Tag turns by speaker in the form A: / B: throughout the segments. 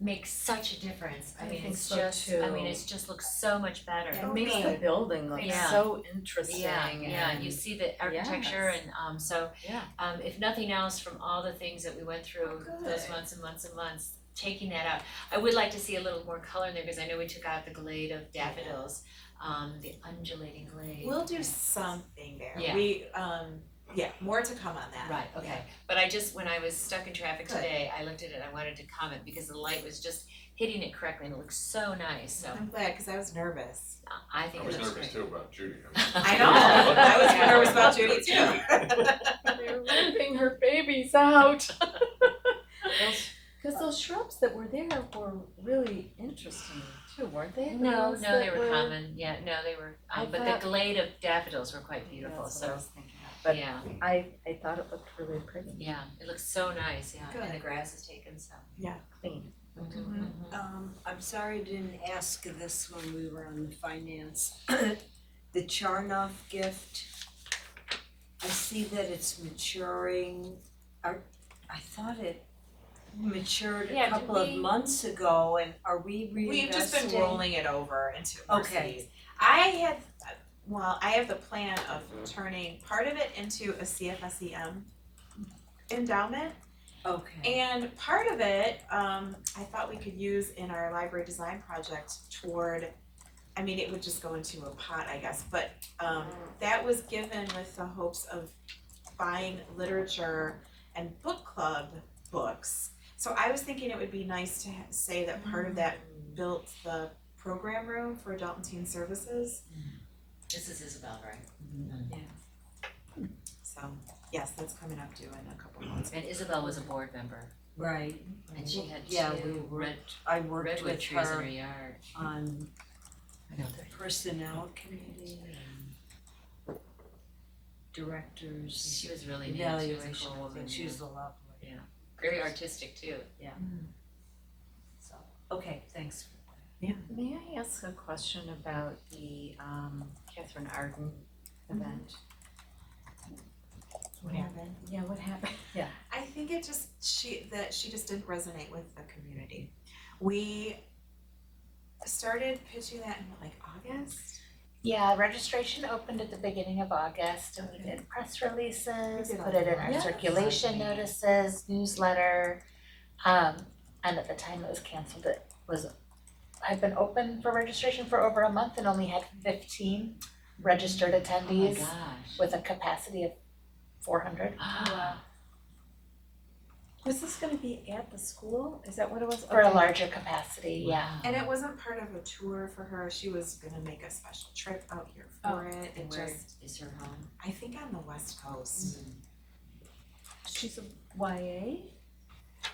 A: makes such a difference. I
B: I
A: mean,
B: think
A: it's
B: so
A: just, I mean,
B: too.
A: it's just looks so much better.
B: It makes the building look
A: Yeah.
B: so interesting
A: Yeah, yeah, you
B: and-
A: see the architecture
B: Yes.
A: and um so
B: Yeah.
A: um if nothing else from all the things that we went through
B: Oh,
A: those
B: good.
A: months and months and months, taking that out. I would like to see a little more color in there because I know we took out the glade of daffodils, um the undulating glade.
C: We'll do something there.
A: Yeah.
C: We, um, yeah, more to come on that.
A: Right, okay, but I just, when I was stuck in traffic
C: Good.
A: today, I looked at it, I wanted to comment because the light was just hitting it correctly and it looked so nice, so
B: Mm-hmm.
C: I'm glad, cause I was nervous.
A: I think
D: I
A: it looks
D: was
A: great.
D: nervous too about Judy.
C: I know, I was
A: Yeah.
C: nervous about Judy too.
B: They're ripping her babies out. Cause those shrubs that were there were really interesting too, weren't they? The
A: No,
B: ones
A: no, they
B: that
A: were common, yeah, no, they were,
B: I
A: um, but
B: thought- Oh,
A: the glade of daffodils were quite beautiful,
B: That's what I
A: so,
B: was thinking of. But
A: yeah,
B: I, I thought it looked really pretty,
A: yeah, it looks so nice, yeah, and the
C: Good.
A: grass is taken, so.
B: clean. Mm-hmm.
A: Mhm.
E: Um, I'm sorry I didn't ask this when we were on the finance. The Charnoff gift, I see that it's maturing. Are, I thought it matured
A: Yeah,
E: a
A: did
E: couple of
A: we-
E: months ago and are we reinvesting?
C: We've just been rolling it over into
E: Okay.
C: Mercedes. I had, well, I have the plan of turning part of it into a CFSEM E endowment.
E: Okay,
C: And part of it, um, I thought we could use in our library design project toward, I mean, it would just go into a pot, I guess, but, um, that was given with the hopes of buying literature and book club books. So I was thinking it would be nice to ha- say that part of that built the program room for adult and teen services,
A: This is Isabel, right?
C: so, yes, that's coming up due in a couple months.
A: And Isabel was a board member,
E: right.
A: and she had
E: Yeah, we
A: two red,
E: worked, I worked
A: redwood
E: with
A: trees in her
E: her
A: yard.
E: on
A: I know,
E: personnel committee and directors
A: she was really neat, she was a
E: evaluation,
A: cool woman,
E: and she
A: yeah.
E: was a lovely,
A: very artistic too.
E: so, okay, thanks for that.
B: May I ask a question about the um Catherine Arden event? What hap-
C: Kevin?
B: Yeah, what happened?
C: I think it just she that she just didn't resonate with the community. We started pitching that in like August.
F: Yeah, registration opened at the beginning of August and we did press releases,
C: We did
F: put it in
C: all
F: our
B: that.
F: circulation notices, newsletter. Um, and at the time it was canceled, it was, had been open for registration for over a month and only had fifteen registered
A: Oh my
F: attendees
A: gosh.
F: with a capacity of four hundred.
B: Was this gonna be at the school? Is that what it was?
F: For a
B: Okay.
F: larger capacity, yeah.
A: Wow.
B: Oh.
C: And it wasn't part of a tour for her. She was gonna make a special trip out here for
B: Oh,
C: it. It
A: And where
C: just
A: is her home?
C: I think on the west coast.
B: Mm. She's a YA?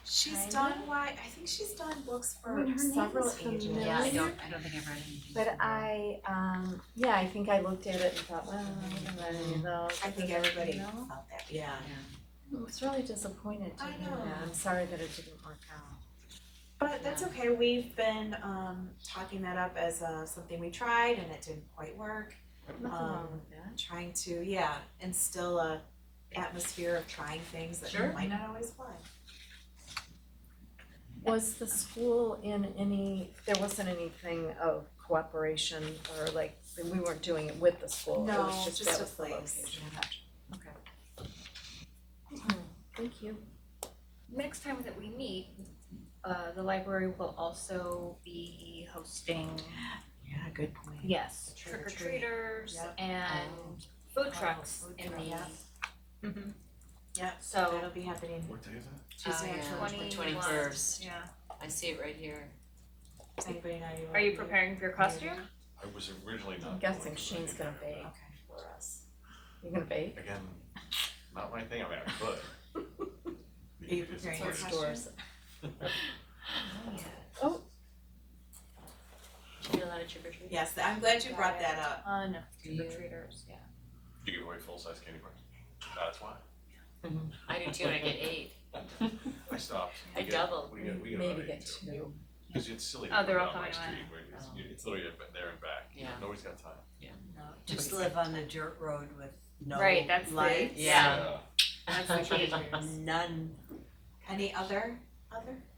C: She's
B: Kinda.
C: done why I think she's done books for
B: I mean, her name
C: several
B: is
C: ages.
B: familiar.
A: Yeah, I don't, I don't think I've read anything.
B: But
A: from her.
B: I, um, yeah, I think I looked at it and thought, well, I don't know, you know.
C: I think everybody
B: You know?
C: felt that, yeah.
B: I was really disappointed to
C: I
B: hear
C: know.
B: that. I'm sorry that it didn't work out.
C: But that's okay, we've been um talking that up as uh something we tried and it didn't quite work.
B: Nothing wrong
C: Um,
B: with that.
C: trying to, yeah, instill a atmosphere of trying things that
A: Sure.
C: might not always fly.
B: Was the school in any, there wasn't anything of cooperation or like, we weren't doing it with the school, it
C: No,
B: was just
C: just
B: that
C: a
B: was the
C: place.
B: location. Okay. Thank you.
G: next time that we meet, uh, the library will also be hosting,
C: Yeah, good point.
G: yes, trick
C: Trick or
G: or treaters
C: Yep.
G: and food
C: Oh,
G: trucks
C: food
G: in
C: truck,
G: the.
C: yeah.
G: Mhm.
C: Yep.
G: So, uh,
C: That'll be happening
D: What day is that?
C: Tuesday,
A: Oh, yeah.
C: October
G: twenty.
A: Twenty-first.
G: Yeah,
A: I see it right here.
C: anybody know you wanna
G: are you
C: do?
G: preparing for your costume?
D: I was originally not.
B: I'm guessing
D: going to
B: Shane's
D: make
B: gonna
D: that,
B: bake.
C: Okay, for us.
B: You're gonna bake?
D: but Again, not my thing, I mean, I could.
C: Are you
D: Because it's
C: preparing
D: like-
C: your costume?
B: Oh.
A: Do you do a lot of trick or treating?
C: Yes, I'm glad you brought that up.
G: On
A: Do you?
G: trick or treaters, yeah.
D: You give away full-size candy bars. That's why.
A: I do too, and I get eight.
D: I stopped.
A: I
D: We get-
A: doubled.
D: We get, we get
B: Maybe
D: about eight
B: get
D: too.
B: two.
D: Because it's silly to
G: Oh,
D: put
G: they're
D: it
G: all
D: on my
G: coming
D: street, where it's,
A: Oh.
D: it's literally a- there and back.
A: Yeah.
D: Nobody's got time.
E: No, just live on a dirt road with no
G: Right, that's the-
E: lights,
D: uh,
A: Yeah.
G: That's the key.
E: none.
C: Any other, other?